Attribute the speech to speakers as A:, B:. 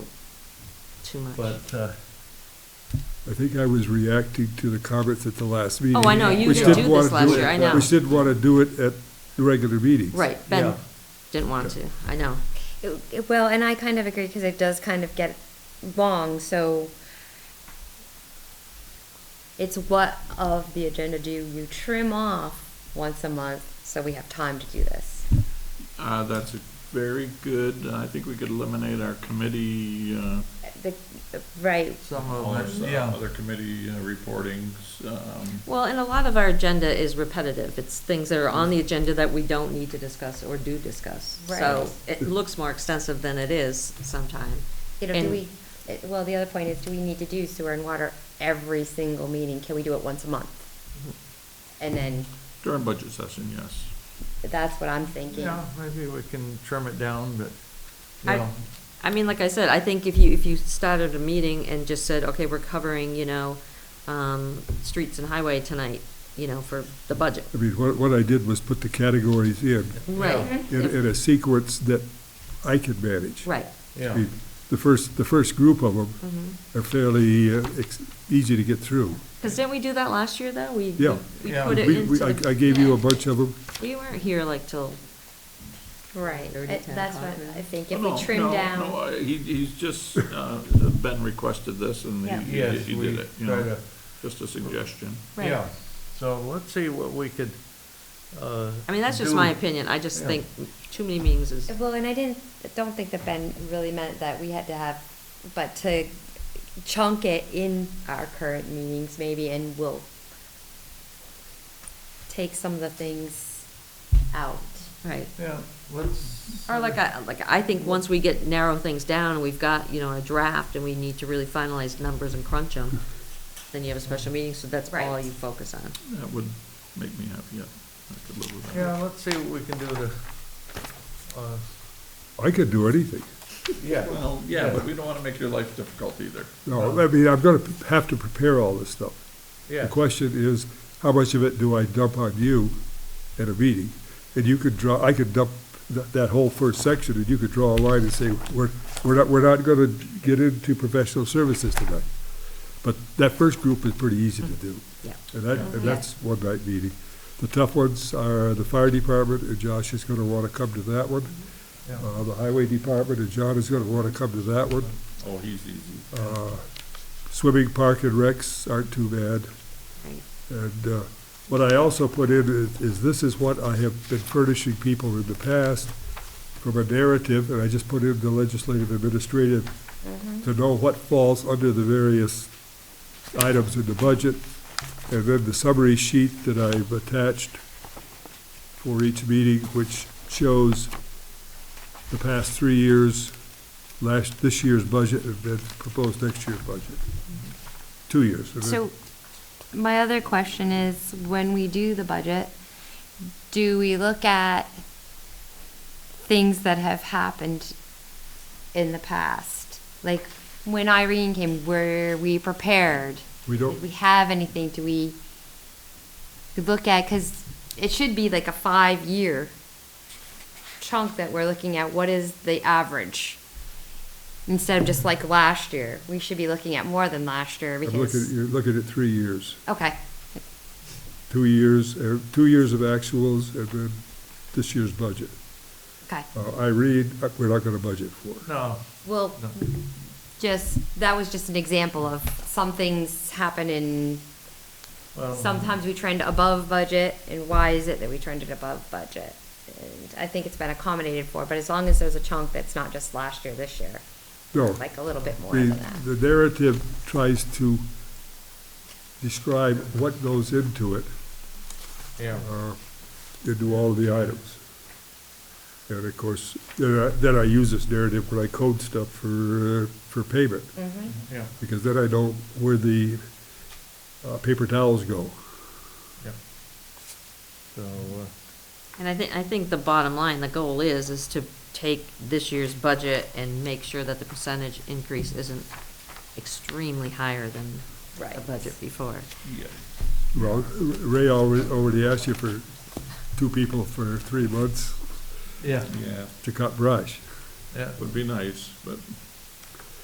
A: too much.
B: but, uh,
C: I think I was reacting to the comments at the last meeting.
A: Oh, I know, you
C: which
A: didn't
C: didn't
A: do
C: wanna
A: this last
C: it-
A: year, I
B: Yeah.
A: know.
C: Which didn't want to do it at the regular meetings.
A: Right, Ben
B: Yeah.
A: didn't want to, I know.
D: It- it- Well, and I kind of agree because it does kind of get long, so it's what of the agenda do you trim off once a month so we have time to do this?
E: Uh, that's a very good, I think we could eliminate our committee, uh,
D: The, right,
B: some
E: all our
B: of,
E: s-
B: it, yeah.
E: other committee uh, reportings, um,
A: Well, and a lot of our agenda is repetitive. It's things that are on the agenda that we don't need to discuss or do discuss. So
D: Right.
A: it looks more extensive than it is sometime.
D: you know, do
A: And-
D: we, it- well, the other point is, do we need to do sewer and water every single meeting? Can we do it once a month? And then,
E: Mm-hmm. during budget session, yes.
D: that's what I'm thinking.
B: Yeah, maybe we can trim it down, but,
A: I-
B: you know,
A: I mean, like I said, I think if you, if you started a meeting and just said, okay, we're covering, you know, um, streets and highway tonight, you know, for the budget.
C: I mean, what, what I did was put the categories in,
A: Right,
C: in, in a sequence that I could manage.
A: right.
C: I
B: yeah.
C: mean, The first, the first group of them
A: Mhm.
C: are fairly uh, ex- easy to get through.
A: Cause didn't we do that last year though? We,
C: Yeah.
A: we
B: Yeah.
A: put it
C: We,
A: into
C: we, I, I
A: the,
C: gave you a bunch of them,
A: we weren't here like till,
D: Right,
A: Thirty,
D: I-
A: ten
D: that's what
A: o'clock, maybe.
D: I think, if
E: No,
D: we
E: Oh, no,
D: trim
E: no,
D: down,
E: uh, He, he's just, uh, Ben requested this and
D: Yeah.
E: he,
B: Yes,
E: he
B: we
E: did it, you
B: try
E: know,
B: to,
E: just a suggestion.
D: right,
B: yeah. So let's see what we could, uh.
A: I mean, that's just
B: do.
A: my opinion. I just
B: Yeah.
A: think too many meetings
E: uh,
A: is,
D: Well, and I didn't, don't think that Ben really meant that we had to have, but to chunk it in our current meetings maybe and we'll take some of the things out.
A: right.
B: Yeah, let's.
A: Or like I, like I think once we get, narrow things down, and we've got, you know, a draft, and we need to really finalize numbers and crunch them, then you have a special meeting, so that's all
D: Right.
A: you focus on.
E: That would make me happy, yeah. I could live with that.
B: Yeah, let's see what we can do to, uh,
C: I could do anything.
B: yeah.
E: Well, yeah, but we don't wanna make your life difficult either.
C: No, I mean, I'm gonna have to prepare all this stuff.
B: Yeah.
C: The question is, how much of it do I dump on you at a meeting? And you could draw, I could dump tha- that whole first section, and you could draw a line and say, we're, we're not, we're not gonna get into professional services tonight. But that first group is pretty easy to do.
A: Mm. Yeah.
C: And that, and that's one night meeting. The tough ones are the fire department, and Josh is gonna wanna come to that one.
B: Yeah.
C: Uh, the highway department, and John is gonna wanna come to that one.
E: Oh, he's easy.
C: Uh, Swimming park and recs aren't too bad.
A: Right.
C: And uh, what I also put in is- is, this is what I have been furnishing people in the past from a narrative, and I just put in the legislative administrative to know what falls under the various items in the budget. And then the summary sheet that I've attached for each meeting, which shows the past three years, last, this year's budget, and then proposed next year's budget. Two years. and then-
F: So, my other question is, when we do the budget, do we look at things that have happened in the past? Like, when Irene came, were we prepared?
C: We don't-
F: Did we have anything? Do we, we look at, because it should be like a five-year chunk that we're looking at, what is the average? Instead of just like last year, we should be looking at more than last year because.
C: I'm looking, you're looking at three years,
F: Okay,
C: two years, uh, two years of actuals, and then this year's budget.
F: okay.
C: Uh, Irene, uh, we're not gonna budget for.
B: No,
F: Well,
B: no.
F: just, that was just an example of some things happen in,
B: Well,
F: sometimes we trend above budget, and why is it that we trended above budget? And I think it's been accommodated for, but as long as there's a chunk that's not just last year, this year,
C: No,
F: like a little bit more than
C: the,
F: that.
C: the narrative tries to describe what goes into it,
B: Yeah.
C: uh, into all of the items. And of course, then I, then I use this narrative when I code stuff for, uh, for payment,
F: Mm-hmm.
B: Yeah,
C: because then I know where the, uh, paper towels go.
B: yeah. So, uh,
A: And I think, I think the bottom line, the goal is, is to take this year's budget and make sure that the percentage increase isn't extremely higher than the
D: Right.
A: budget before.
E: Yeah.
C: Well, Ray already, already asked you for two people for three months
B: yeah,
E: Yeah,
C: to cut brush.
B: yeah.
E: would be nice, but